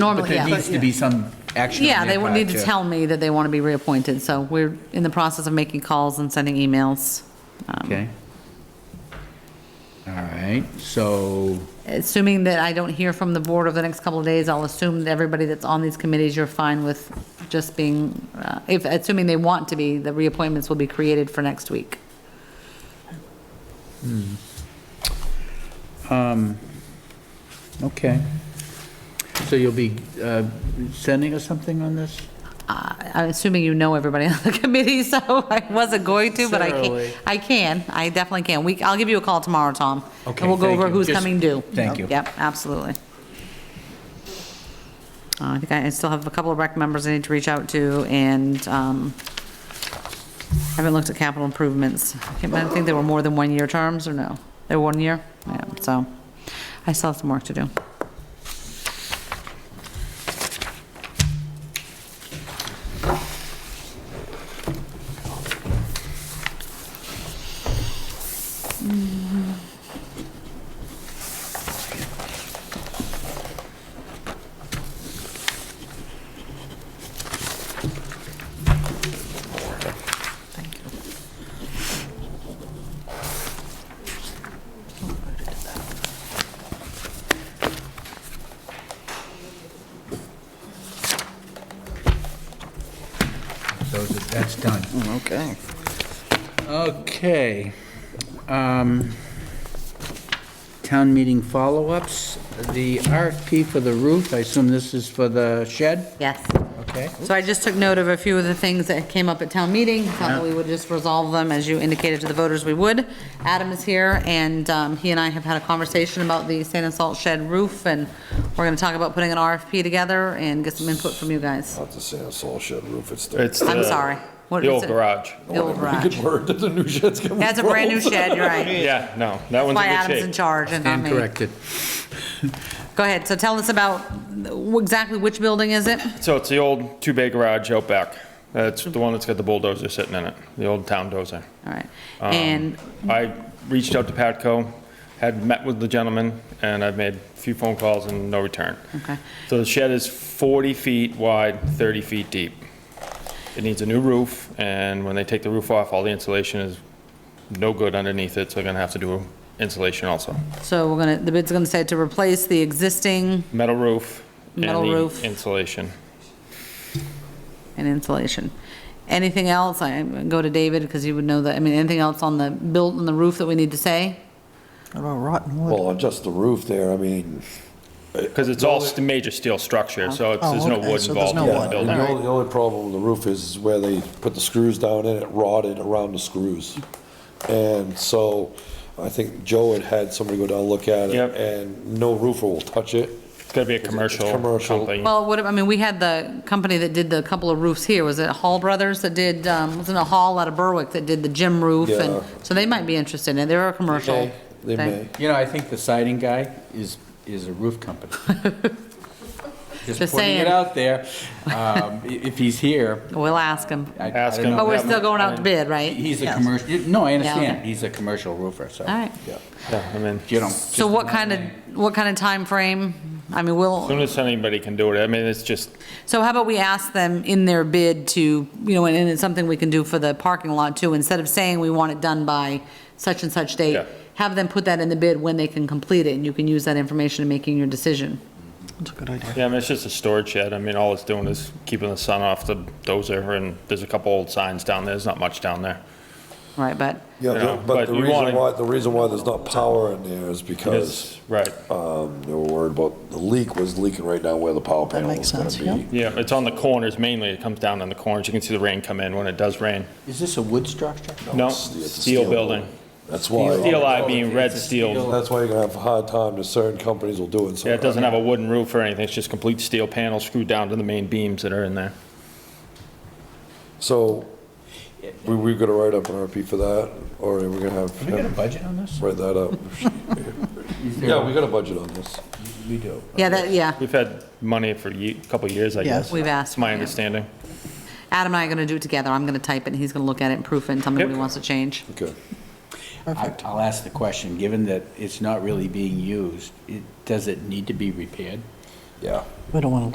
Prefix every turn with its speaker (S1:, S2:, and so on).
S1: Normally, yeah.
S2: But there needs to be some action. on
S1: Yeah, they
S2: their
S1: would
S2: part
S1: need to tell me that they want to be reappointed, so we're in the process of making calls and sending emails. Um,
S2: Okay. All right, so,
S1: Assuming that I don't hear from the board over the next couple of days, I'll assume that everybody that's on these committees, you're fine with just being, uh, if, assuming they want to be, the reappointments will be created for next week.
S2: okay. So you'll be uh, sending us something on this?
S1: Uh, I'm assuming you know everybody on the committee, so I wasn't going to, but I
S2: Certainly.
S1: can, I can, I definitely can. We, I'll give you a call tomorrow, Tom.
S2: Okay,
S1: And we'll go
S2: thank
S1: over
S2: you.
S1: who's
S2: Just-
S1: coming due.
S2: thank you.
S1: Yep, absolutely. Uh, I think I I still have a couple of rec members I need to reach out to, and um, I haven't looked at capital improvements. I can't- I think they were more than one-year terms, or no? They were one year? Yeah, so I still have some work to do.
S2: So that's done.
S3: Okay.
S2: Okay. Um, Town meeting follow-ups. The RFP for the roof, I assume this is for the shed?
S1: Yes.
S2: Okay.
S1: So I just took note of a few of the things that came up at town meeting, thought that we would just resolve them, as you indicated to the voters we would. Adam is here, and um, he and I have had a conversation about the sand and salt shed roof, and we're gonna talk about putting an RFP together and get some input from you guys.
S3: Not the sand salt shed roof, it's the.
S4: It's
S1: I'm
S4: the-
S1: sorry. What
S4: The
S1: is
S4: old
S1: it?
S4: garage.
S1: The old
S3: Good
S1: garage.
S3: word, the new shed's coming.
S1: That's a brand new
S3: from.
S1: shed, you're right.
S4: Yeah, no, that one's
S1: Why
S4: in
S1: Adam's in
S4: good shape.
S1: charge and not
S2: And
S1: me.
S2: corrected.
S1: Go ahead, so tell us about wh- exactly which building is it?
S4: So it's the old two-bay garage out back. That's the one that's got the bulldozer sitting in it, the old town dozer.
S1: All right.
S4: Um.
S1: And
S4: I reached out to Patco, had met with the gentleman, and I've made a few phone calls and no return.
S1: Okay.
S4: So the shed is 40 feet wide, 30 feet deep. It needs a new roof, and when they take the roof off, all the insulation is no good underneath it, so they're gonna have to do insulation also.
S1: so we're gonna, the bid's gonna say to replace the existing
S4: Metal roof and
S1: Metal
S4: the
S1: roof.
S4: insulation.
S1: and insulation. Anything else? I go to David because you would know that. I mean, anything else on the built on the roof that we need to say?
S3: Well, just the roof there, I mean.
S4: Because it's all st- major steel structure, Oh, so it's, there's no wood involved
S5: Oh,
S4: in
S3: yeah,
S4: the
S3: The
S4: building.
S3: only, the only problem with the roof is where they put the screws down and it rotted around the screws. And so I think Joe had had somebody go down and look at it
S4: Yep.
S3: and no roofer will touch it.
S4: It's gotta be a commercial
S3: commercial.
S4: company.
S1: Well, what, I mean, we had the company that did the couple of roofs here. Was it Hall Brothers that did, um, wasn't it Hall out of Berwick that did the gym roof? And
S3: Yeah.
S1: so they might be interested in it. They're a commercial.
S3: They
S1: thing.
S3: may.
S2: You know, I think the siding guy is, is a roof company. Just
S1: Just
S2: putting it
S1: saying.
S2: out there. Um, i- If he's here,
S1: We'll ask them.
S2: I I
S4: Ask
S2: don't
S4: him.
S2: know.
S1: But we're
S4: that
S1: still
S4: might-
S1: going out to bid, right?
S2: He's
S1: Oh,
S2: a
S1: Yes.
S2: commercial, no, I understand.
S1: okay.
S2: He's a commercial roofer, so.
S1: All right.
S3: Yeah.
S4: Yeah, I mean,
S2: You don't.
S1: So what kind of, what kind of time frame? I mean, we'll.
S4: as soon as anybody can do it, I mean, it's just,
S1: So how about we ask them in their bid to, you know, and and it's something we can do for the parking lot too, instead of saying we want it done by such and such date,
S4: Yeah.
S1: have them put that in the bid when they can complete it, and you can use that information in making your decision.
S4: yeah, I mean, it's just a storage shed. I mean, all it's doing is keeping the sun off the dozer, and there's a couple old signs down there. There's not much down there.
S1: Right, but,
S3: Yeah,
S4: Yeah,
S3: the- but
S4: but
S3: the
S4: you
S3: reason
S4: wanna-
S3: why, the reason why there's not power in there is because
S4: It's, right,
S3: um, they were worried about, the leak was leaking right down where the power panel was
S5: makes
S3: gonna
S5: sense,
S3: be.
S5: yeah.
S4: yeah, it's on the corners mainly. It comes down on the corners. You can see the rain come in when it does rain.
S2: Is this a wood structure?
S4: No,
S3: it's the- it's the
S4: steel building. Oh,
S3: That's why.
S4: Steel I being red steel.
S3: That's why you're gonna have a hard time, that certain companies will do it. so-
S4: Yeah, it doesn't have a wooden roof or anything. It's just complete steel panels screwed down to the main beams that are in there.
S3: So, we, we gonna write up an RP for that, or are we gonna have
S2: We got a
S3: him
S2: budget on this?
S3: write that up? Yeah, we got a budget on this.
S2: We do.
S1: yeah, that, yeah,
S4: We've had money for a couple of years, I
S5: Yes.
S4: guess.
S1: we've asked.
S4: That's my
S1: yeah.
S4: understanding.
S1: Adam and I are gonna do it together, I'm gonna type it, and he's gonna look at it and proof it, and tell me what he
S4: Yep.
S1: wants to change.
S3: Okay.
S6: I- I'll ask the question, given that it's not really being used, it- does it need to be repaired?
S3: Yeah.
S5: We don't want to